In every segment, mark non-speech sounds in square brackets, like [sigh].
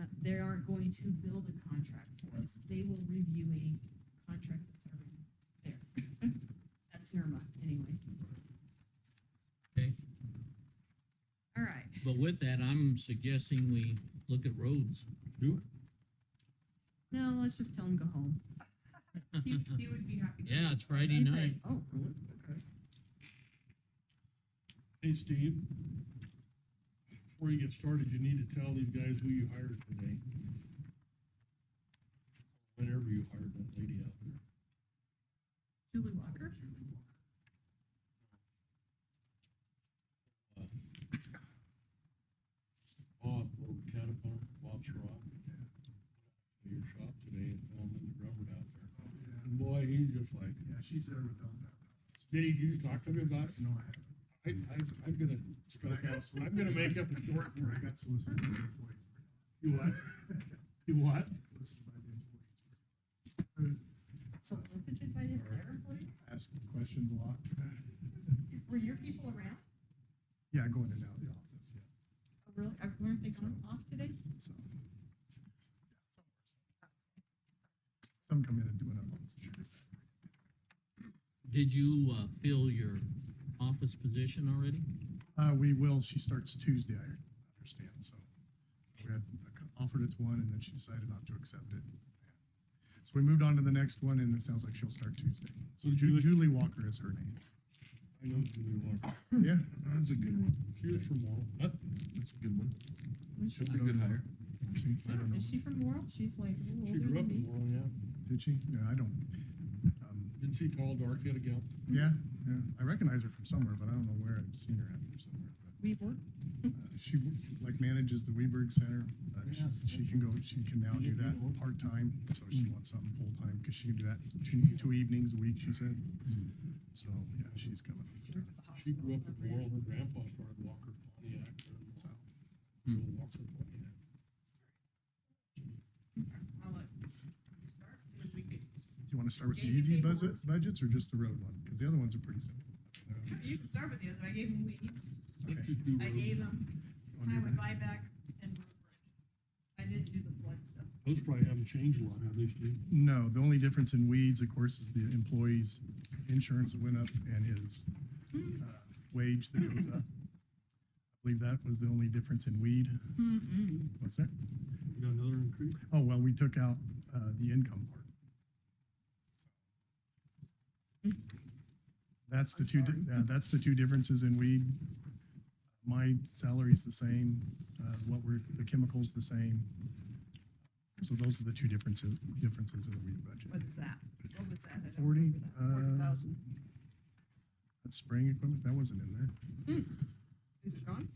uh, they aren't going to build a contract for us. They will review a contract that's already there. [laughs] That's NERMA, anyway. Okay. All right, But with that, I'm suggesting we look at roads. Do no, let's just tell them go home. He, he would be happy. to. [laughs] Yeah, it's Friday He's night. like, Oh, really? Okay. it. Hey, Steve. Before you get started, you need to tell these guys who you hired today. Whenever you hired that lady out there. Julie Walker? Bob over at Caterpillar, Bob's Rock. to Your shop today and found Linda Drummond out there. Oh, yeah. And boy, he's just like, Yeah, she said her dumb that. Did you talk to me about it? No, I haven't. I, I, I'm gonna, But I got I'm gonna make up a story story for where I it. got solicited by the employees. You what? You what? Solicited by the employees. Uh, So visited by the their employees? Asking questions a lot. Were your people around? Yeah, going in and out of the office, yeah, Oh, Really? Uh, Weren't they gone off today? so. Some come in and do it on months. Did you, uh, fill your office position already? Uh, we will, she starts Tuesday, I understand, so. We had offered it to one and then she decided not to accept it. So we moved on to the next one and it sounds like she'll start Tuesday. So Julie, Ju- Julie Walker is her name. I know Julie Walker. Yeah. That's a good one. She was from Laurel. Huh? That's a good one. Was she- She'll be a good hire. I don't know. Is she from Laurel? She's like, a little She older grew up than me. in Laurel, yeah. Did she? Yeah, I don't. um, Isn't she tall, dark, headed gal? Yeah, yeah. I recognize her from somewhere, but I don't know where I've seen her at or somewhere. We worked, But, uh, She like manages the Weberg Center. Uh, she's- She can go, she can now do that part-time, so she wants something full-time because she can do that two- two evenings a week, she said. So, yeah, she's coming. she worked at the hospital. She grew up in over Laurel. there. Her grandpa started Walker Pontiac. there in So, Laurel. Little Walker Pontiac. I'll let you start, and then we could- Do you want to start with the Gave you easy paperwork. budget, budgets or just the road one? Because the other ones are pretty simple. Uh, You can start with the other, I gave him, weed. Let's Okay. just do I roads. gave him On your- highway buyback and road bridge. I didn't do the flood stuff. Those probably haven't changed a lot, have they, Steve? No, the only difference in weeds, of course, is the employee's insurance that went up and his uh, wage that goes up. I believe that was the only difference in weed. What's that? You got another increase? Oh, well, we took out uh, the income part. Mm-hmm. That's the two, di- uh, that's the two differences in weed. My salary's the same, uh, what we're, the chemical's the same. So those are the two differences, differences in the weed budget. What is that? What was that? I don't Forty, remember that. Forty uh, thousand. That's spraying equipment, that wasn't in there. Is it gone?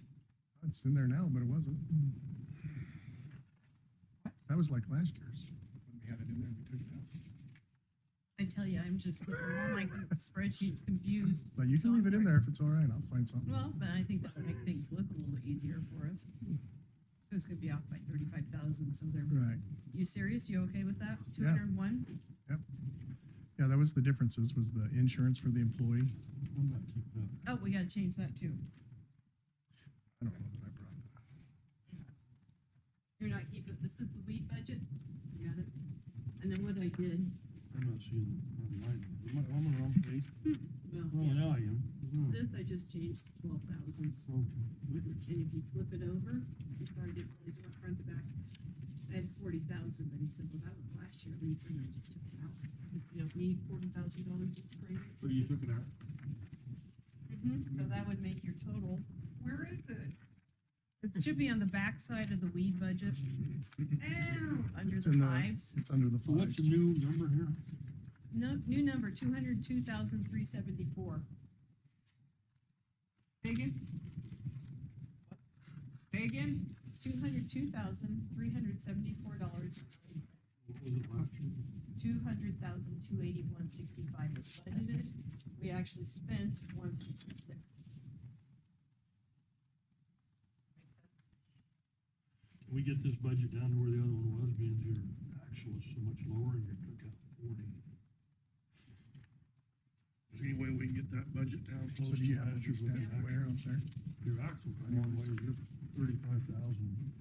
It's in there now, but it wasn't. That was like last year's, when we had it in there, we took it out. I tell you, I'm just, all my spreadsheet's confused. But you So can leave it in I'm- there if it's all right, I'll find something. Well, but I think that would make things look a little bit easier for us. So it's gonna be off by thirty-five thousand, so they're, Right, you serious? You okay with that? Two Yeah. hundred and one? yeah, that was the differences, was the insurance for the employee. I'm not keeping up. Oh, we gotta change that too. I don't know that I brought that. You're not keeping, this is the weed budget? You Got it. And then what I did, I'm not seeing the wrong line. Am I, am I wrong, Steve? Oh, well, yeah, I am. Oh, this I just changed twelve thousand. okay. And if you flip it over, I'm sorry, I didn't really do it front to back. I had forty thousand, but he said, well, that was last year, Lisa, and I just took it out. You don't need forty thousand dollars in spring. So you took it out? Mhm, So that would make your total, where is it? It should be on the backside of the weed budget. Ow, under It's the in the- fives. It's under the So what's the fives. new number here? No, new number, two hundred two thousand three seventy-four. Again? Again? Two hundred two thousand three hundred seventy-four dollars. What was it last year? Two hundred thousand two eighty-one sixty-five was budgeted. We actually spent one sixty-six. Can we get this budget down to where the other one was, being your actual is so much lower and you took out forty? Is there any way we can get that budget down So close to do you have what last you year's? spent where up there? Your actual, I know, like, you're thirty-five thousand